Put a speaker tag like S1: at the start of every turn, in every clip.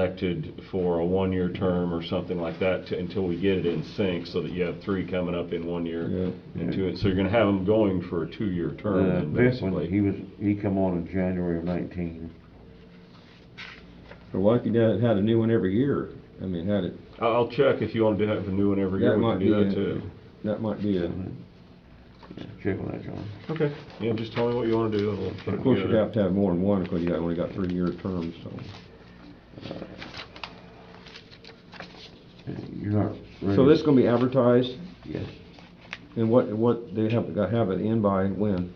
S1: elected for a one-year term or something like that to- until we get it in sync so that you have three coming up in one year
S2: Yeah.
S1: and two. So you're going to have them going for a two-year term
S2: Uh,
S1: then
S2: This one, he
S1: basically.
S2: was, he come on in January of nineteen.
S3: Or what if you done, had a new one every year? I mean, had it,
S1: I- I'll check if you want to have a new one every year.
S3: That
S1: We
S3: might
S1: can do
S3: be
S1: that
S3: a-
S1: too.
S3: that might be a,
S2: Check on that, John.
S1: Okay. Yeah, just tell me what you want to do and we'll put
S3: of
S1: it
S3: course, you'd
S1: together.
S3: have to have more than one, because you got- only got three-year terms, so.
S2: Uh, You're not ready.
S3: So this gonna be advertised,
S2: Yes.
S3: and what, what, they have, gotta have it in by when?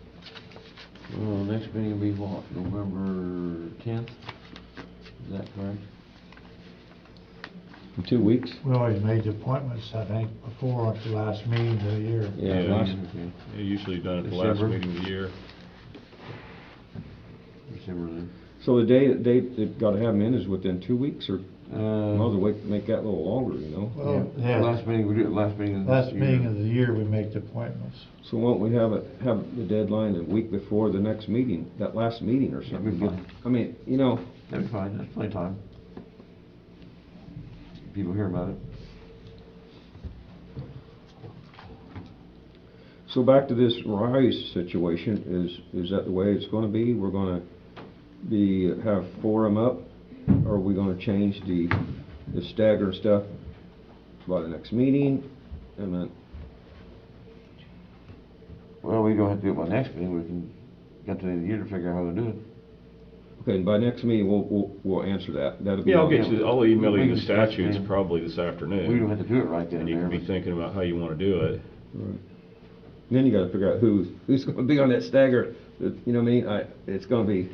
S2: Well, the next meeting will be what, November tenth? Is that correct?
S3: In two weeks?
S4: We always made the appointments, I think, before at the last meeting of the year.
S3: Yeah,
S1: Yeah.
S3: last,
S2: Okay,
S1: Yeah, Usually done at the last
S2: December.
S1: meeting of the year.
S2: December
S3: so the day, that they, they've gotta have them in is within two weeks, or,
S2: then. Uh.
S3: well, the way, make that a little longer, you know?
S4: Well,
S2: yeah,
S4: yeah,
S2: Uh, Last meeting, we do it last meeting of this
S4: last
S2: year.
S4: meeting of the year, we make the appointments.
S3: So won't we have it, have the deadline a week before the next meeting, that last meeting or
S2: That'd be
S3: something?
S2: fine,
S3: I mean, you know,
S2: that'd be fine, that's plenty of time. People hear about it.
S3: So back to this rise situation, is, is that the way it's gonna be? We're gonna be, have forum up? Or are we gonna change the, the stagger stuff by the next meeting? And then,
S2: Well, we don't have to do it by next meeting, we can, get to the end of the year to figure out how to do it.
S3: okay, and by next meeting, we'll, we'll, we'll answer that. That'll be.
S1: Yeah, I'll
S3: on-
S1: get you, I'll email
S2: We
S1: you
S2: can
S1: the
S2: discuss
S1: statutes
S2: then.
S1: probably this afternoon.
S2: We don't have to do it right then
S1: And
S2: and
S1: you
S2: there.
S1: can be
S2: but-
S1: thinking about how you want to do it.
S3: Right. Then you gotta figure out who's, who's gonna be on that stagger, you know what I mean? I, it's gonna be,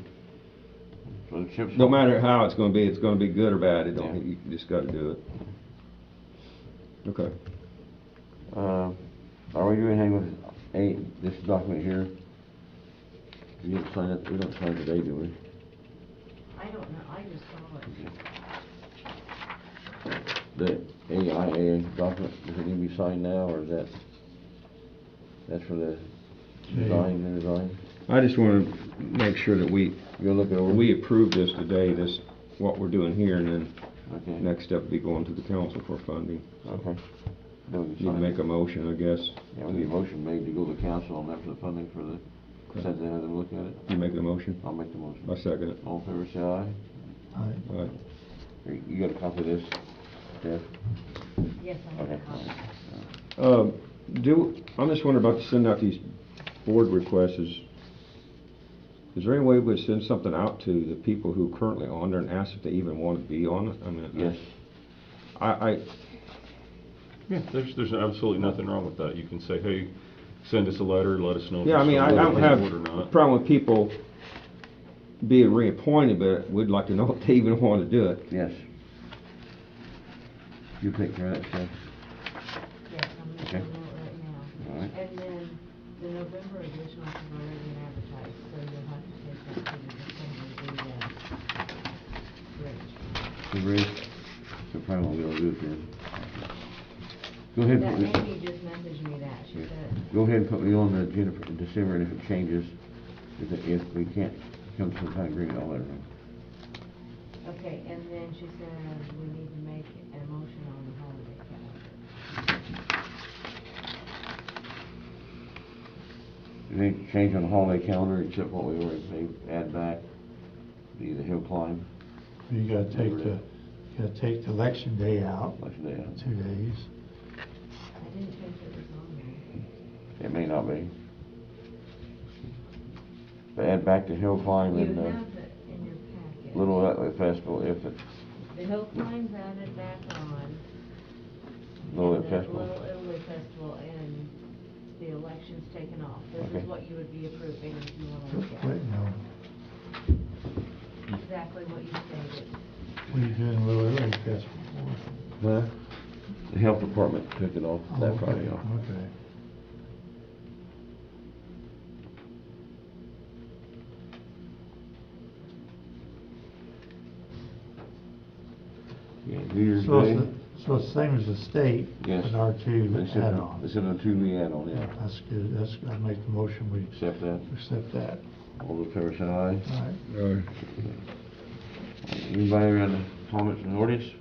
S2: so the chips-
S3: no matter how it's gonna be, it's gonna be good or bad, it
S2: Yeah.
S3: don't, you just gotta do it. Okay.
S2: Uh, are we doing anything with, any, this document here? You didn't sign it, we don't sign it today, do we?
S5: I don't know, I just saw it.
S2: The AIA document, does it need to be signed now, or is that, that's for the design, the design?
S3: I just wanna make sure that we,
S2: You'll look it over?
S3: We approve this today, this, what we're doing here, and then
S2: Okay.
S3: next step would be going to the council for funding.
S2: Okay. Then we
S3: Need to
S2: can sign
S3: make
S2: it.
S3: a motion, I guess.
S2: Yeah, we need a motion made to go to council on that for the funding for the,
S3: Okay.
S2: send them, have them look at it.
S3: You make the motion?
S2: I'll make the motion.
S3: I second it.
S2: All in favor, say aye.
S4: I-
S3: All right.
S2: Here, You got a copy of this, Jeff?
S5: Yes, I have
S2: Okay.
S5: a copy.
S3: Um, do, I'm just wondering about sending out these board requests is, is there any way we send something out to the people who are currently on there and ask if they even want to be on it? I mean,
S2: Yes.
S3: I, I,
S1: Yeah, there's, there's absolutely nothing wrong with that. You can say, hey, send us a letter, let us know. if
S3: yeah, I
S1: it's
S3: mean, I I
S1: still
S3: don't
S1: in
S3: have
S1: order or
S3: a
S1: not.
S3: problem with people being reappointed, but we'd like to know if they even want to do it.
S2: Yes. You take care of that, Jeff.
S5: Yes, I'm gonna
S2: Okay.
S5: go right now.
S2: All right.
S5: And then the November edition is already been advertised, so you'll have to take that to the December, the, uh, bridge.
S2: The rest, so probably won't be able to do it then. Go ahead, and
S5: That
S2: put me-
S5: Amy just messaged me that, she said,
S2: go ahead and put me on the agenda for December, and if it changes, if, it- if we can't come to some kind of agreement, I'll let her know.
S5: okay, and then she said, we need to make a motion on the holiday calendar.
S2: Is there any change on the holiday calendar except what we already may add back? The, the hill climb,
S4: You gotta take the, you gotta take the election day out,
S2: election day, out.
S4: two days.
S5: I didn't think it was on there.
S2: it may not be. But add back the hill climb
S5: You
S2: and,
S5: have
S2: uh,
S5: it in your packet.
S2: Little uh, Italy Festival, if it,
S5: The Hill Climb's added back on.
S2: Little
S5: and
S2: Italy
S5: the
S2: Festival.
S5: Little Italy Festival and the election's taken off. This
S2: Okay.
S5: is what you would be approving if you want to
S4: Just
S5: look at it.
S4: waiting on,
S5: exactly what you stated.
S4: what are you doing a little early, that's before.
S2: Huh? The health department took it off,
S4: Oh,
S2: that
S4: okay,
S2: Friday off.
S4: Okay.
S2: Yeah, New Year's
S4: So it's,
S2: Day.
S4: the- so it's same as the state,
S2: Yes.
S4: but our two
S2: They said, they
S4: add-on.
S2: said a two-week add-on, yeah.
S4: That's good, that's, I make the motion, we
S2: Accept that.
S4: accept that.
S2: All those favors say aye.
S4: All right.
S2: Anybody got any comments on the ordinance?